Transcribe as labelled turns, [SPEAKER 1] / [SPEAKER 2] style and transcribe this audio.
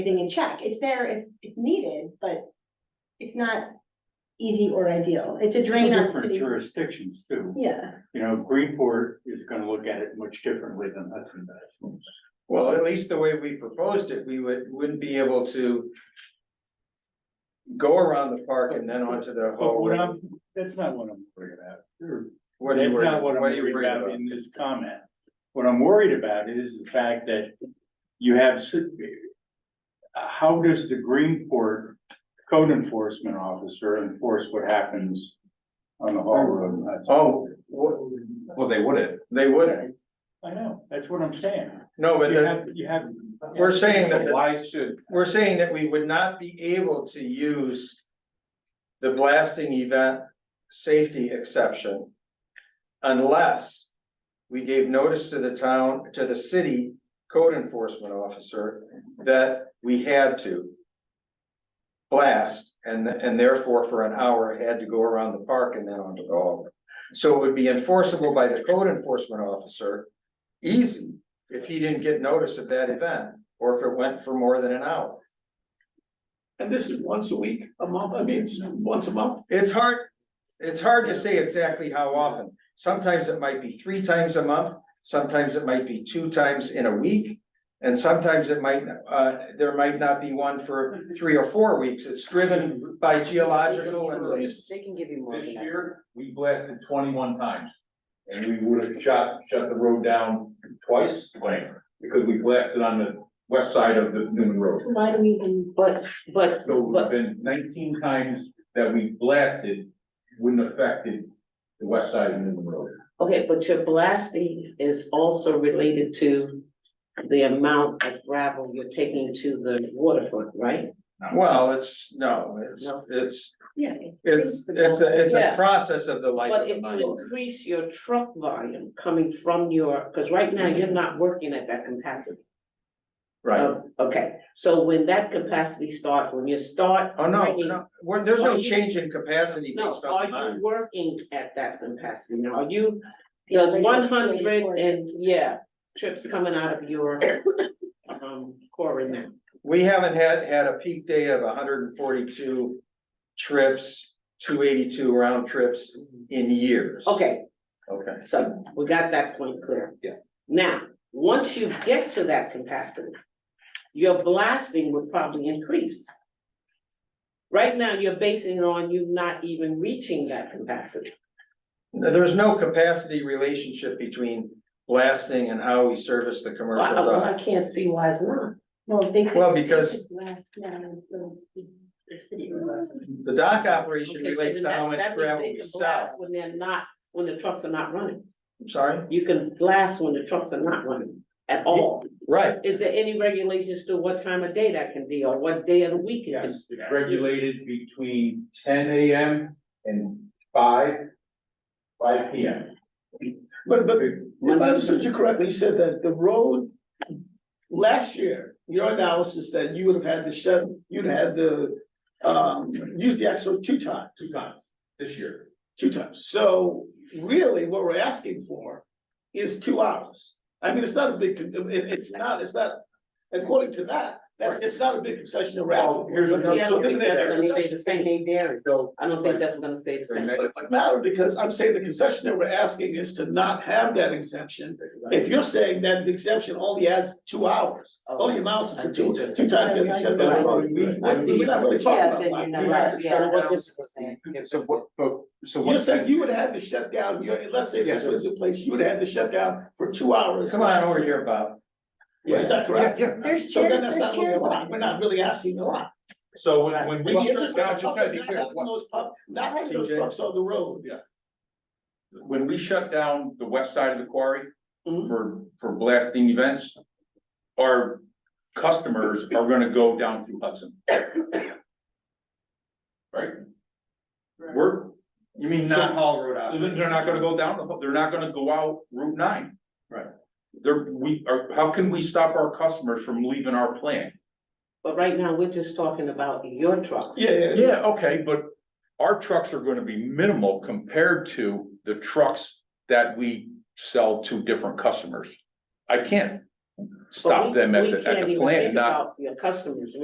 [SPEAKER 1] everything in check. It's there if, if needed, but it's not easy or ideal. It's a
[SPEAKER 2] Two
[SPEAKER 1] drain on the
[SPEAKER 2] different
[SPEAKER 1] city.
[SPEAKER 2] jurisdictions too,
[SPEAKER 1] Yeah,
[SPEAKER 2] you know, Greenport is gonna look at it much differently than Hudson does.
[SPEAKER 3] Well, at least the way we proposed it, we would, wouldn't be able to. Go around the park and then onto the
[SPEAKER 2] But what
[SPEAKER 3] hallway.
[SPEAKER 2] I'm, that's not what I'm worried about.
[SPEAKER 3] What do you
[SPEAKER 2] That's
[SPEAKER 3] worry,
[SPEAKER 2] not what I'm
[SPEAKER 3] what do you
[SPEAKER 2] worried
[SPEAKER 3] worry
[SPEAKER 2] about
[SPEAKER 3] about?
[SPEAKER 2] in this comment. What I'm worried about is the fact that you have, s- how does the Greenport code enforcement officer enforce what happens on the Hall Road? in Hudson?
[SPEAKER 3] Oh, what,
[SPEAKER 4] Well, they wouldn't.
[SPEAKER 3] they wouldn't,
[SPEAKER 2] I know, that's what I'm saying.
[SPEAKER 3] no, but
[SPEAKER 2] You
[SPEAKER 3] the,
[SPEAKER 2] have, you have.
[SPEAKER 3] we're saying that,
[SPEAKER 4] But Why should,
[SPEAKER 3] we're saying that we would not be able to use. The blasting event safety exception. Unless we gave notice to the town, to the city code enforcement officer that we had to. Blast and and therefore for an hour had to go around the park and then onto the hallway. So it would be enforceable by the code enforcement officer. Easy if he didn't get notice of that event or if it went for more than an hour.
[SPEAKER 5] And this is once a week, a month, I mean, it's once a month.
[SPEAKER 3] It's hard, it's hard to say exactly how often. Sometimes it might be three times a month, sometimes it might be two times in a week. And sometimes it might, uh, there might not be one for three or four weeks. It's driven by geological and.
[SPEAKER 6] They can give you more
[SPEAKER 4] this
[SPEAKER 6] than that.
[SPEAKER 4] year, we blasted twenty-one times. And we would have shut, shut the road down twice, like, because we blasted on the west side of the Newman Road.
[SPEAKER 6] Why do we even, but, but,
[SPEAKER 4] So it's been nineteen times that we blasted, wouldn't affected the west side of Newman Road.
[SPEAKER 6] okay, but your blasting is also related to the amount of gravel you're taking to the waterfront, right?
[SPEAKER 3] Well, it's, no, it's,
[SPEAKER 6] No.
[SPEAKER 3] it's,
[SPEAKER 1] yeah.
[SPEAKER 3] it's, it's a, it's a
[SPEAKER 6] Yeah.
[SPEAKER 3] process of the life of
[SPEAKER 6] But
[SPEAKER 3] the
[SPEAKER 6] if
[SPEAKER 3] mine.
[SPEAKER 6] you increase your truck volume coming from your, because right now you're not working at that capacity.
[SPEAKER 3] Right.
[SPEAKER 6] Oh, Okay, so when that capacity starts, when you start.
[SPEAKER 3] Oh, no,
[SPEAKER 6] bringing-
[SPEAKER 3] no, we're- there's no
[SPEAKER 6] Are you-
[SPEAKER 3] change in capacity
[SPEAKER 6] No,
[SPEAKER 3] based on the
[SPEAKER 6] are you
[SPEAKER 3] mine.
[SPEAKER 6] working at that capacity now? Are you Does one hundred and, yeah, trips coming out of your um quarry now.
[SPEAKER 3] We haven't had, had a peak day of hundred and forty-two trips, two eighty-two round trips in years.
[SPEAKER 6] Okay,
[SPEAKER 3] Okay.
[SPEAKER 6] so we got that point clear.
[SPEAKER 4] Yeah.
[SPEAKER 6] Now, once you get to that capacity, your blasting would probably increase. Right now, you're basing it on you not even reaching that capacity.
[SPEAKER 3] Now, There's no capacity relationship between blasting and how we service the
[SPEAKER 6] Well,
[SPEAKER 3] commercial
[SPEAKER 6] I well,
[SPEAKER 3] dock.
[SPEAKER 6] I can't see why it's not.
[SPEAKER 1] Well, they could.
[SPEAKER 3] Well, because-
[SPEAKER 1] they could blast down the- the- the city road.
[SPEAKER 3] The dock operation
[SPEAKER 6] Okay, so
[SPEAKER 3] relates
[SPEAKER 6] then
[SPEAKER 3] to how
[SPEAKER 6] that-
[SPEAKER 3] much
[SPEAKER 6] that means
[SPEAKER 3] gravel
[SPEAKER 6] they
[SPEAKER 3] we
[SPEAKER 6] can
[SPEAKER 3] sell.
[SPEAKER 6] blast When they're not, when the trucks are not running.
[SPEAKER 3] I'm sorry?
[SPEAKER 6] You can blast when the trucks are not running at all.
[SPEAKER 3] Right,
[SPEAKER 6] Is there any regulations to what time of day that can be or what day of the week it
[SPEAKER 2] Yes,
[SPEAKER 6] is?
[SPEAKER 2] yeah.
[SPEAKER 4] Regulated between ten AM and five, five PM.
[SPEAKER 5] But, but if I understood you correctly, you said that the road last year, your analysis that you would have had to shut, you'd had to um, use the actual two times,
[SPEAKER 4] Two times this year.
[SPEAKER 5] two times. So really what we're asking for is two hours. I mean, it's not a big, con- it, it's not, it's not, according to that, that's, it's not a big concession that we're asking.
[SPEAKER 4] Well, here's
[SPEAKER 5] for.
[SPEAKER 4] another-
[SPEAKER 5] So this
[SPEAKER 6] Yeah,
[SPEAKER 5] is
[SPEAKER 6] that's
[SPEAKER 5] a
[SPEAKER 6] gonna stay
[SPEAKER 5] concession.
[SPEAKER 6] the same. They vary.
[SPEAKER 4] So.
[SPEAKER 6] I don't think that's gonna stay the same.
[SPEAKER 5] But it would matter because I'm saying the concession that we're asking is to not have that exemption. If you're saying that the exemption only adds two hours, only amounts to two, two times, then you shut down the road.
[SPEAKER 4] I
[SPEAKER 5] So we're not really talking
[SPEAKER 6] Yeah,
[SPEAKER 5] about
[SPEAKER 6] then you're
[SPEAKER 5] that.
[SPEAKER 6] not-
[SPEAKER 4] Right,
[SPEAKER 6] yeah,
[SPEAKER 4] shut
[SPEAKER 6] what's
[SPEAKER 4] down.
[SPEAKER 6] this percent?
[SPEAKER 4] So what, but, so what?
[SPEAKER 5] You're saying you would have had to shut down, your let's say this was in place, you would have had to shut down for two hours.
[SPEAKER 3] come on over here, Bob.
[SPEAKER 5] Is that
[SPEAKER 4] Yeah,
[SPEAKER 5] correct?
[SPEAKER 4] yeah.
[SPEAKER 1] There's
[SPEAKER 5] So
[SPEAKER 1] chair-
[SPEAKER 5] then that's
[SPEAKER 1] there's
[SPEAKER 5] not really
[SPEAKER 1] chair
[SPEAKER 5] a lot, we're not really asking a lot.
[SPEAKER 4] So when, when we
[SPEAKER 5] Not
[SPEAKER 4] shut it down, just gotta be clear,
[SPEAKER 5] having
[SPEAKER 4] what-
[SPEAKER 5] those pub- Not having those
[SPEAKER 3] TJ.
[SPEAKER 5] trucks on the road.
[SPEAKER 4] when we shut down the west side of the quarry
[SPEAKER 6] Mhm.
[SPEAKER 4] for, for blasting events, our customers are gonna go down through Hudson. Right? We're,
[SPEAKER 3] You
[SPEAKER 4] mean not
[SPEAKER 3] Hall Road
[SPEAKER 4] uh, They're they're not gonna go down, the they're not gonna go out Route nine.
[SPEAKER 3] Right.
[SPEAKER 4] They're, we are, how can we stop our customers from leaving our plant?
[SPEAKER 6] But right now, we're just talking about your trucks.
[SPEAKER 5] Yeah, yeah, yeah.
[SPEAKER 4] Yeah, okay, but our trucks are gonna be minimal compared to the trucks that we sell to different customers. I can't,
[SPEAKER 6] But
[SPEAKER 4] stop
[SPEAKER 6] we-
[SPEAKER 4] them at
[SPEAKER 6] we
[SPEAKER 4] the, at
[SPEAKER 6] can't
[SPEAKER 4] the
[SPEAKER 6] even
[SPEAKER 4] plant,
[SPEAKER 6] think
[SPEAKER 4] and not
[SPEAKER 6] about Your customers,